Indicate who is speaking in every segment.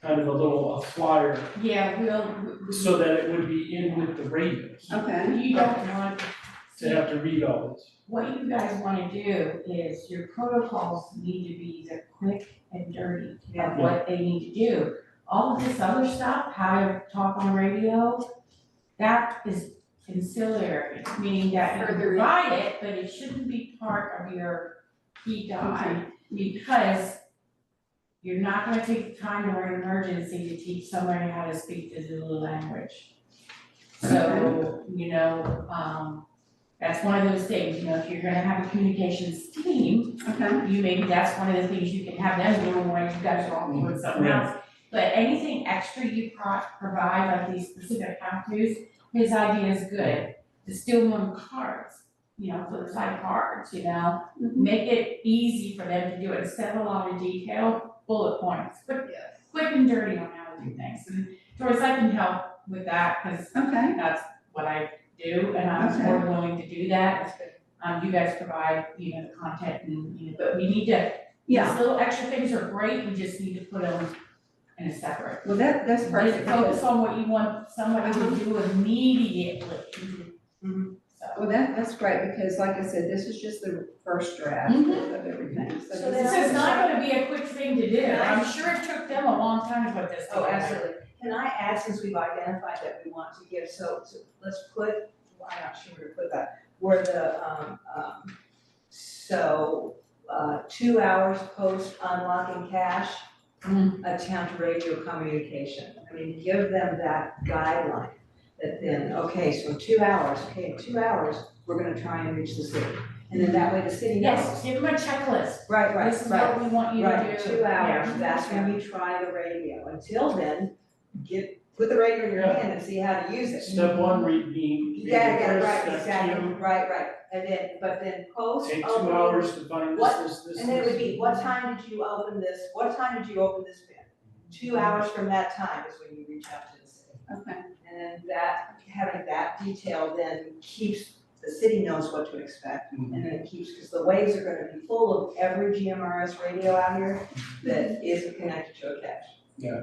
Speaker 1: kind of a little a flyer
Speaker 2: Yeah, we'll,
Speaker 1: so that it would be in with the radios
Speaker 3: Okay,
Speaker 2: you don't want,
Speaker 1: to have to read all this.
Speaker 2: what you guys wanna do is your protocols need to be the quick and dirty of what they need to do. All of this other stuff, how to talk on radio, that is ancillary, meaning that you can
Speaker 4: Further.
Speaker 2: provide it, but it shouldn't be part of your key doc. Because you're not gonna take the time during an emergency to teach somebody how to speak the Zulu language. So, you know, um, that's one of those things, you know, if you're gonna have a communications team,
Speaker 3: okay,
Speaker 2: you maybe that's one of the things you can have them do when you guys are all doing something
Speaker 1: Yeah.
Speaker 2: else. But anything extra you pro- provide, like these specific how-tos, his idea is good. The steal them cards, you know, flip side cards, you know?
Speaker 3: Mhm.
Speaker 2: Make it easy for them to do it, instead of a lot of detail, bullet points, quick,
Speaker 4: Yes.
Speaker 2: quick and dirty on how to do things. And Doris, I can help with that, because
Speaker 3: okay,
Speaker 2: that's what I do, and I'm
Speaker 3: Okay.
Speaker 2: more willing to do that. Um, you guys provide, you know, the content and, you know, but we need to, these
Speaker 3: yeah,
Speaker 2: little extra things are great, we just need to put them in a separate.
Speaker 3: well, that, that's
Speaker 2: Just
Speaker 3: perfect. Uh-huh.
Speaker 2: focus on what you want somebody to do immediately. So,
Speaker 3: Mm-hmm. Well, that, that's great, because like I said, this is just the first draft of
Speaker 2: Mhm.
Speaker 3: everything, so.
Speaker 4: So
Speaker 3: this
Speaker 2: this
Speaker 4: then-
Speaker 2: is not gonna be a quick thing to do,
Speaker 4: Yeah.
Speaker 2: I'm sure it took them a long time to put this
Speaker 4: Oh,
Speaker 2: together.
Speaker 4: absolutely. Can I add, since we've identified that we want to give, so, so let's put, well, I'm not sure where to put that, where the, um, um, so, uh, two hours post unlocking cash,
Speaker 2: Mm.
Speaker 4: attempt radio communication. I mean, give them that guideline, that then, okay, so two hours, okay, in two hours, we're gonna try and reach the city. And then that way the city knows.
Speaker 2: Yes, give them a checklist,
Speaker 4: Right, right,
Speaker 2: this is
Speaker 4: right.
Speaker 2: what we want you to do.
Speaker 4: Right, two hours,
Speaker 2: Yeah.
Speaker 4: that's when you try the radio, until then, get, put the radio in your
Speaker 1: Yeah.
Speaker 4: hand and see how to use it.
Speaker 1: Step one, read being,
Speaker 4: You
Speaker 1: read
Speaker 4: gotta get it
Speaker 1: first,
Speaker 4: right,
Speaker 1: step
Speaker 4: exactly,
Speaker 1: two,
Speaker 4: right, right, and then, but then post,
Speaker 1: take two
Speaker 4: open-
Speaker 1: hours to find this,
Speaker 4: What?
Speaker 1: this, this,
Speaker 4: And then it would
Speaker 1: this.
Speaker 4: be, what time did you open this, what time did you open this bin? Two hours from that time is when you reach out to the city.
Speaker 3: Okay,
Speaker 4: And then that, having that detail then keeps, the city knows what to expect.
Speaker 1: Mhm.
Speaker 4: And then it keeps, because the waves are gonna be full of every GMRS radio out here that is connected to a cache.
Speaker 3: yeah.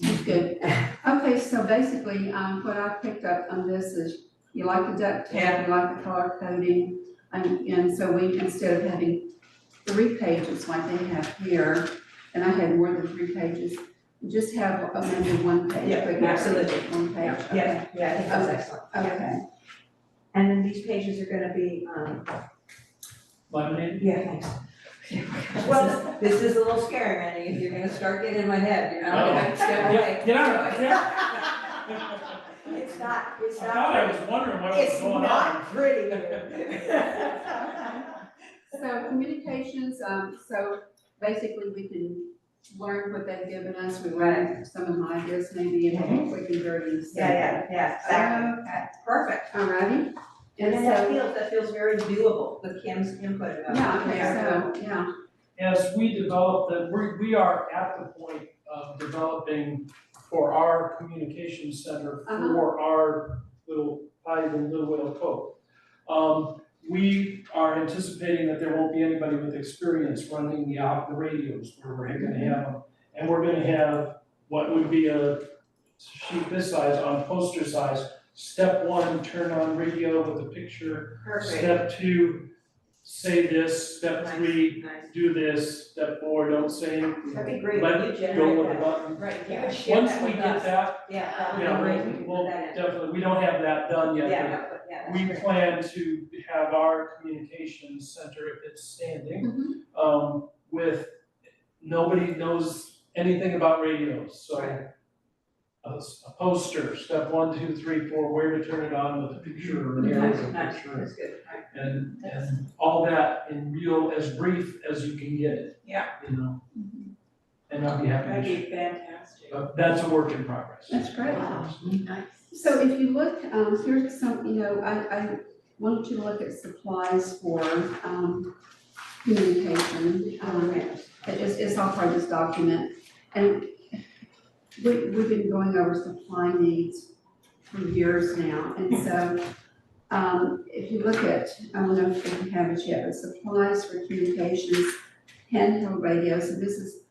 Speaker 3: That's good. Okay, so basically, um, what I picked up on this is, you like the duct tape, you like the color coding, and, and so we, instead of having three pages like they have here, and I had more than three pages, just have uh, maybe one page.
Speaker 4: Yeah,
Speaker 3: but not
Speaker 4: absolutely.
Speaker 3: One page, okay,
Speaker 4: Yeah, yeah, I think that's excellent.
Speaker 3: okay,
Speaker 4: And then these pages are gonna be, um,
Speaker 1: Lemonade?
Speaker 4: yeah, thanks. Well,
Speaker 3: Well-
Speaker 4: this is a little scary, Randy, if you're gonna start getting in my head, you know,
Speaker 1: Oh.
Speaker 4: like, step away.
Speaker 1: Yeah, get out of it,
Speaker 4: It's not,
Speaker 1: I
Speaker 4: it's not.
Speaker 1: thought I was wondering what was
Speaker 4: It's
Speaker 1: going on.
Speaker 4: not pretty. here.
Speaker 3: so communications, um, so basically we can learn what they've given us, we learn some of my ideas maybe, and hopefully we can dirty the stuff.
Speaker 4: Yeah, yeah, yeah, exactly.
Speaker 3: Okay,
Speaker 4: Um, Perfect.
Speaker 3: alrighty,
Speaker 4: And
Speaker 3: and
Speaker 4: then that
Speaker 3: so,
Speaker 4: feels, that feels very doable with Kim's input about.
Speaker 3: yeah,
Speaker 4: it.
Speaker 3: okay, so, yeah,
Speaker 1: As we develop them, we, we are at the point of developing for our communication center
Speaker 3: Uh-huh.
Speaker 1: for our little, not even Little Whale Cove. Um, we are anticipating that there won't be anybody with experience running the out, the radios where we're gonna
Speaker 4: Mm-hmm.
Speaker 1: have them. And we're gonna have what would be a sheet this size on poster size. Step one, turn on radio with a picture.
Speaker 4: Perfect.
Speaker 1: Step two, say this. Step
Speaker 4: Nice.
Speaker 1: three,
Speaker 4: Nice.
Speaker 1: do this, step forward, don't say anything.
Speaker 4: That'd be great.
Speaker 1: Let
Speaker 4: You
Speaker 1: it go
Speaker 4: generate
Speaker 1: with
Speaker 4: that.
Speaker 1: the button.
Speaker 2: Right,
Speaker 4: You
Speaker 2: yeah.
Speaker 4: could share
Speaker 1: Once
Speaker 4: that
Speaker 1: we
Speaker 4: with
Speaker 1: get
Speaker 4: us.
Speaker 1: that,
Speaker 4: Yeah, that would be
Speaker 1: yeah,
Speaker 4: great.
Speaker 1: we'll,
Speaker 4: Put
Speaker 1: we'll
Speaker 4: that in.
Speaker 1: definitely, we don't have that done
Speaker 4: Yeah,
Speaker 1: yet,
Speaker 4: no, but yeah,
Speaker 1: but
Speaker 4: that's
Speaker 1: we
Speaker 4: great.
Speaker 1: plan to have our communications center, if it's standing,
Speaker 3: mhm,
Speaker 4: Mm-hmm.
Speaker 1: um, with, nobody knows anything about radios, so.
Speaker 4: Right.
Speaker 1: A, s- a poster, step one, two, three, four, where to turn it on with a picture or an arrow
Speaker 4: Nice,
Speaker 1: with a
Speaker 4: nice,
Speaker 1: picture,
Speaker 4: that's good, right.
Speaker 1: and, and all that in real, as brief as you can get it.
Speaker 4: Yeah.
Speaker 1: You know? And Mm-hmm. I'd be happy to share.
Speaker 4: be fantastic.
Speaker 1: But that's a work in progress.
Speaker 3: that's great.
Speaker 2: Nice.
Speaker 3: So if you look, um, here's some, you know, I, I wanted you to look at supplies for, um, communication, um, It is, it's all part of this document, and we, we've been going over supply needs for years now, and so, um, if you look at, I don't know if you have it yet, but supplies for communications, handheld radios, and this is